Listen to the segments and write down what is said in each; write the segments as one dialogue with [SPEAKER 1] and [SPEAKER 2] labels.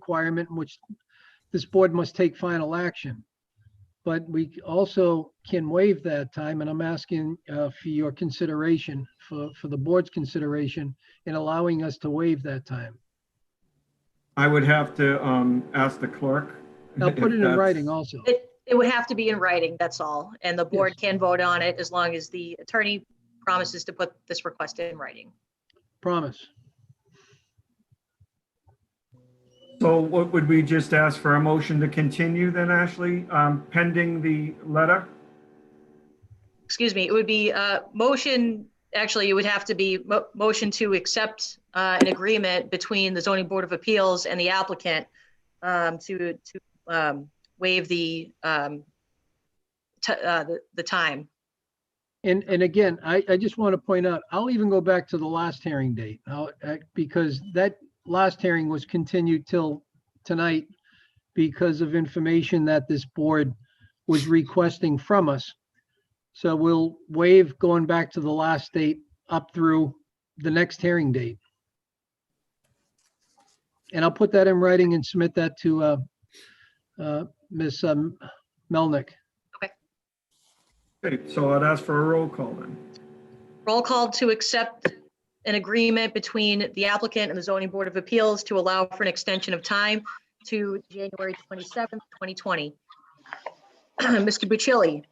[SPEAKER 1] requirement in which this board must take final action. But we also can waive that time, and I'm asking uh, for your consideration, for, for the board's consideration in allowing us to waive that time.
[SPEAKER 2] I would have to um, ask the clerk.
[SPEAKER 1] Now,
[SPEAKER 2] if
[SPEAKER 1] put it in
[SPEAKER 2] that's-
[SPEAKER 1] writing also.
[SPEAKER 3] It, it would have to be in writing, that's all. And the board can vote on it as long as the attorney promises to put this request in writing.
[SPEAKER 1] Promise.
[SPEAKER 2] So what would we just ask for a motion to continue then, Ashley, um, pending the letter?
[SPEAKER 3] Excuse me, it would be uh motion, actually, it would have to be mo- motion to accept uh, an agreement between the zoning board of appeals and the applicant um, to, to um, waive the, um, t- uh, the- the time.
[SPEAKER 1] And, and again, I, I just want to point out, I'll even go back to the last hearing date, I'll- I- because that last hearing was continued till tonight because of information that this board was requesting from us. So we'll waive going back to the last date up through the next hearing date. And I'll put that in writing and submit that to uh, uh, Ms. um, Melnick.
[SPEAKER 2] Okay, so I'd ask for a roll call then.
[SPEAKER 3] Roll call to accept an agreement between the applicant and the zoning board of appeals to allow for an extension of time to January 27th, 2020. Mr. Bucilli?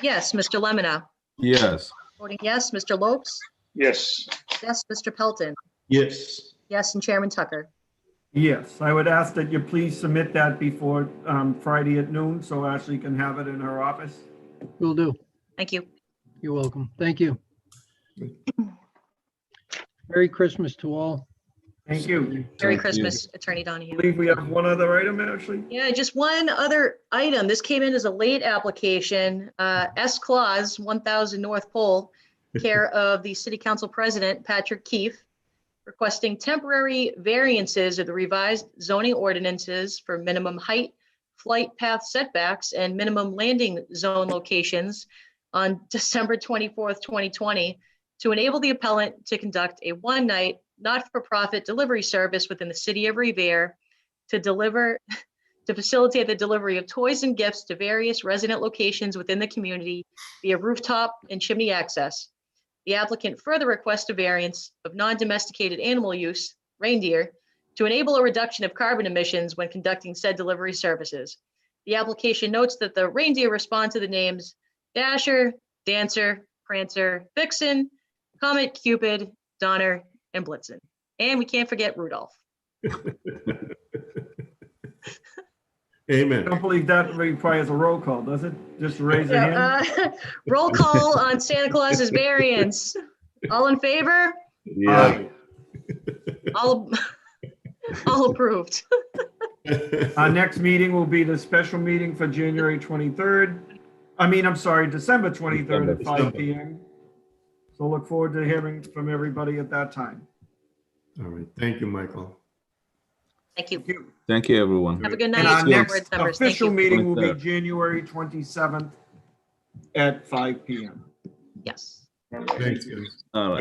[SPEAKER 3] Yes, Mr. Lemonna?
[SPEAKER 4] Yes.
[SPEAKER 3] Voting yes, Mr. Lopes?
[SPEAKER 5] Yes.
[SPEAKER 3] Yes, Mr. Pelton?
[SPEAKER 5] Yes.
[SPEAKER 3] Yes, and Chairman Tucker?
[SPEAKER 2] Yes, I would ask that you please submit that before um, Friday at noon so Ashley can have it in her office.
[SPEAKER 1] Will do.
[SPEAKER 3] Thank you.
[SPEAKER 1] You're welcome. Thank you. Merry Christmas to all.
[SPEAKER 2] Thank you.
[SPEAKER 3] Merry
[SPEAKER 4] Thank you.
[SPEAKER 3] Christmas, Attorney
[SPEAKER 2] I
[SPEAKER 3] Donahue.
[SPEAKER 2] believe we have one other item, Ashley.
[SPEAKER 3] Yeah, just one other item. This came in as a late application. Uh, S Claus, 1,000 North Pole, care of the City Council President Patrick Keefe, requesting temporary variances of the revised zoning ordinances for minimum height, flight path setbacks, and minimum landing zone locations on December 24th, 2020, to enable the appellant to conduct a one-night, not-for-profit delivery service within the city of Revere to deliver to facilitate the delivery of toys and gifts to various resident locations within the community via rooftop and chimney access. The applicant further requests a variance of non-domesticated animal use, reindeer, to enable a reduction of carbon emissions when conducting said delivery services. The application notes that the reindeer respond to the names Dasher, Dancer, Prancer, Vixen, Comet, Cupid, Donner, and Blitzen. And we can't forget Rudolph.
[SPEAKER 2] I
[SPEAKER 4] Amen.
[SPEAKER 2] don't believe that requires a roll call, does it? Just raise your hand.
[SPEAKER 3] Yeah, uh, Roll call on Santa Claus's variance. All in favor?
[SPEAKER 4] Yeah.
[SPEAKER 3] All, all approved.
[SPEAKER 2] Our next meeting will be the special meeting for January 23rd. I mean, I'm sorry, December 23rd at
[SPEAKER 4] December.
[SPEAKER 2] 5 PM. So look forward to hearing from everybody at that time.
[SPEAKER 4] All right. Thank you, Michael.
[SPEAKER 3] Thank you.
[SPEAKER 2] Thank you.
[SPEAKER 6] Thank you, everyone.
[SPEAKER 3] Have a good
[SPEAKER 2] And our
[SPEAKER 3] night. board
[SPEAKER 2] next
[SPEAKER 3] members. Thank
[SPEAKER 2] official
[SPEAKER 3] you.
[SPEAKER 2] meeting will be
[SPEAKER 6] 23rd.
[SPEAKER 2] January 27th at 5 PM.
[SPEAKER 3] Yes.
[SPEAKER 4] Thanks, guys.
[SPEAKER 6] All right.